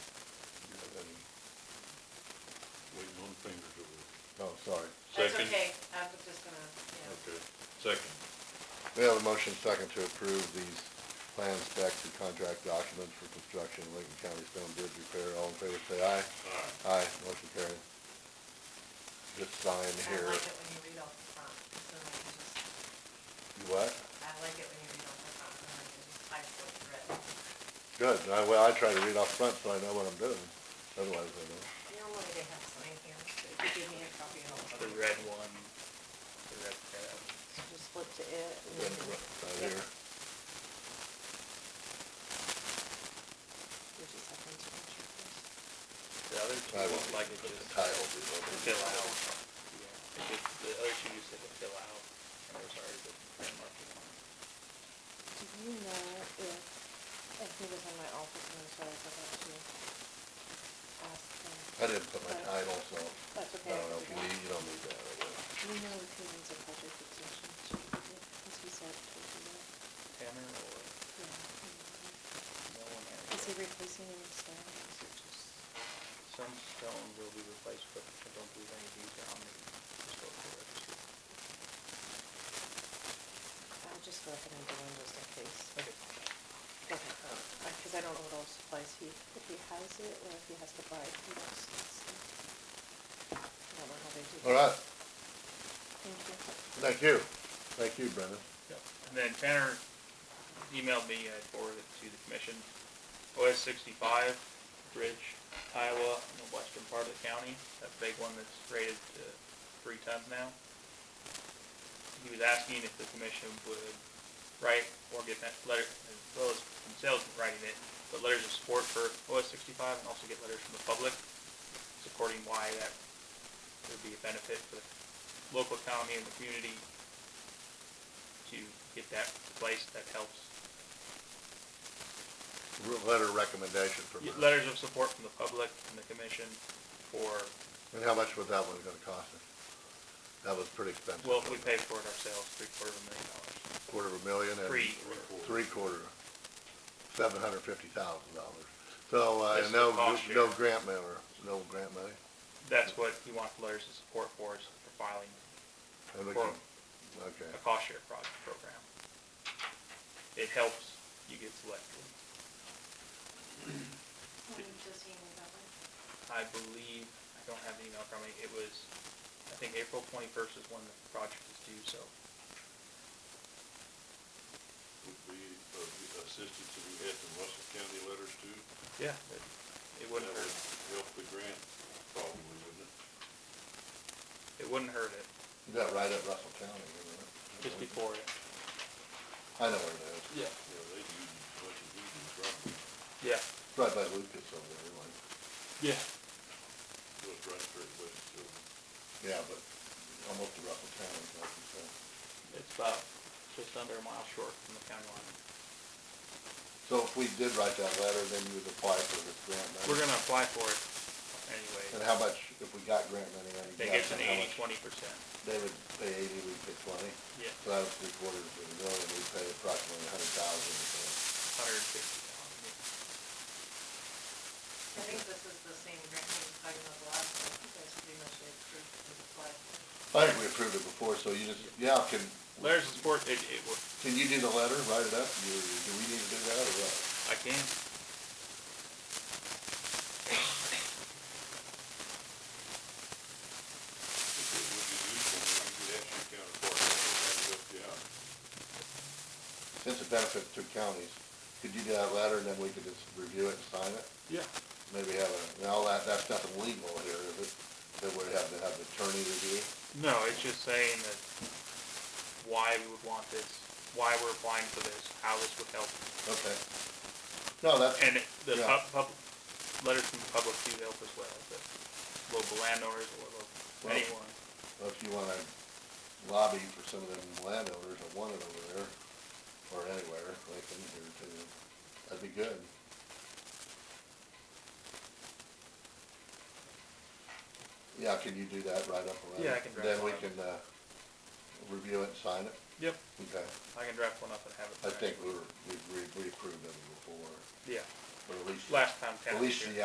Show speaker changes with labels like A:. A: Oh, sorry.
B: That's
C: Second.
B: okay, I'm just gonna, yeah.
C: Okay, second.
A: We have a motion second to approve these plans, specs, and contract documents for construction of Lincoln County Stone Bridge repair. All in favor, say aye.
C: All right,
A: Aye, motion carried. Just sign
B: I
A: here.
B: like it when you read off the front, so I can just,
A: You What?
B: I like it when you read off the front, and I can just type what you read.
A: Good. I, well, I try to read off front so I know what I'm doing. Otherwise, I don't.
B: Normally they have sign here, so if you give me a copy of all of
D: The
B: them,
D: red one, the red tab.
B: so just flip to it. and
A: Right
B: then
A: here.
B: You just have to answer first.
D: The other two
A: I
D: look
A: won't
D: like
A: like
D: it
A: put the
D: just
A: title. below
D: to
A: it.
D: fill out. Yeah, it just, the other two just said to fill out, and there's already the print marking on it.
B: Do you know if, and he was in my office, and so I forgot to ask him.
A: I didn't put my title, so
B: That's
A: I
B: okay.
A: don't know if you
B: forgot.
A: need, you don't need that, I guess.
B: Do you know if he needs a project extension? Should we do- As we said, should we do that?
D: Tanner or
B: Yeah.
D: no one there.
B: Is he replacing any stone? or Is it just?
D: Some stone will be replaced, but I don't believe any of these are on the historical registry.
B: I would just recommend the one just in case.
D: Okay.
B: Okay. Because I don't know what all supplies he, if he has it or if he has to buy it. he wants it, so. I don't know how they do. that.
A: All right,
B: Thank you.
A: thank you. Thank you, Brendan.
D: Yep. And then Tanner emailed me, I forwarded it to the commission, OS sixty-five, Bridge, Iowa, in the western part of the county, that big one that's rated to three tons now. He was asking if the commission would write or get that letter, as well as themselves writing it, but letters of support for OS sixty-five and also get letters from the public supporting why that would be a benefit for the local economy and the community to get that placed, that helps.
A: Re- Letter of recommendation from
D: Get
A: her.
D: Letters of support from the public and the commission for,
A: And how much was that one gonna cost us? That was pretty expensive.
D: well, if we pay for it ourselves, three quarter of a million dollars.
A: Quarter of a million and.
D: Three,
A: three quarter, seven hundred fifty thousand dollars. So, uh,
D: That's
A: and
D: the
A: no,
D: cost
A: no
D: share.
A: grant member, no grant money,
D: that's what he wants letters of support for, is for filing
A: and we
D: For-
A: can, okay,
D: a cost share pro- program. It helps you get selected. I believe, I don't have the email from me, it was, I think April twenty-first is when the project is due, so
C: would be uh, of the assistance that we had from Russell County letters too.
D: yeah, it, it wouldn't
C: That
D: hurt,
C: would Help the grant, probably, wouldn't it?
D: it wouldn't hurt it,
A: you got right at Russell County, isn't it?
D: just before it.
A: I know where it is,
D: Yeah.
C: Yeah, they do as much as we do, probably,
D: Yeah,
A: right by Lucas over there, like,
D: yeah.
C: goes right straight uh, west, so.
A: yeah, but almost to Russell County, like you said.
D: It's about just under a mile short from the county line.
A: So if we did write that letter, then you would apply for this grant money?
D: We're gonna apply for it
A: And
D: anyway.
A: how much, if we got grant money, then you
D: They
A: got
D: get an
A: how much-
D: eighty, twenty percent.
A: They would pay eighty, we'd pay twenty,
D: Yeah,
A: so that was three quarters of a million, we'd pay approximately a hundred thousand or so.
D: hundred and fifty thousand.
B: I think this is the same grant we was talking about the last one, you guys pretty much approved the supply.
A: I think we approved it before, so you just, yeah, can,
D: Letters of support, it, it, would-
A: can you do the letter, write it up, do, do we need to do that or what?
D: I can.
C: If it would be useful, then we could actually counterpart, that would help you out.
A: Since it benefits two counties, could you do that letter and then we could just review it and sign it?
D: Yeah.
A: Maybe have a, now that, that's nothing legal here, is it? That we'd have to have the attorney review?
D: No, it's just saying that why we would want this, why we're applying for this, how this would help.
A: Okay. No, that's,
D: And it- the
A: Yeah.
D: pub, pub, letters from the public do help as well, the local landowners or local,
A: Well-
D: anyone.
A: well, if you wanna lobby for some of them landowners that want it over there, or anywhere, like in here too, that'd be good. Yeah, can you do that, write up a letter?
D: Yeah, I can draft
A: Then we
D: one up.
A: can, uh, review it and sign it?
D: Yep,
A: Okay,
D: I can draft one up and have it.
A: I
D: for next
A: think
D: week.
A: we were, we, we- we approved them before,
D: Yeah,
A: or at least.
D: last time Tanner
A: At
D: was
A: least
D: here.
A: the